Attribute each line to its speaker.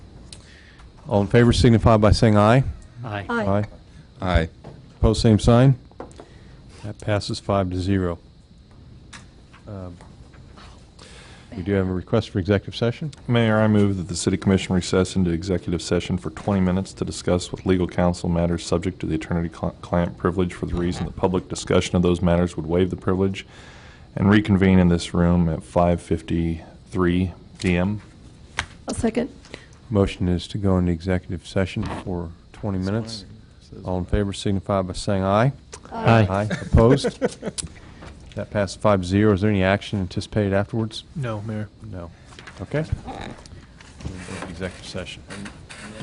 Speaker 1: All in favor signify by saying aye.
Speaker 2: Aye.
Speaker 3: Aye.
Speaker 4: Aye.
Speaker 1: Post same sign. That passes five to zero. Um, We do have a request for executive session.
Speaker 4: Mayor, I move that the city commission recess into executive session for 20 minutes to discuss with legal counsel matters subject to the attorney-client privilege for the reason that public discussion of those matters would waive the privilege, and reconvene in this room at 5:53 PM.
Speaker 3: I'll second.
Speaker 1: Motion is to go into executive session for 20 minutes. All in favor signify by saying aye.
Speaker 2: Aye.
Speaker 1: Opposed? That passes five to zero. Is there any action anticipated afterwards?
Speaker 5: No, Mayor.
Speaker 1: No. Okay. We'll go to Executive session.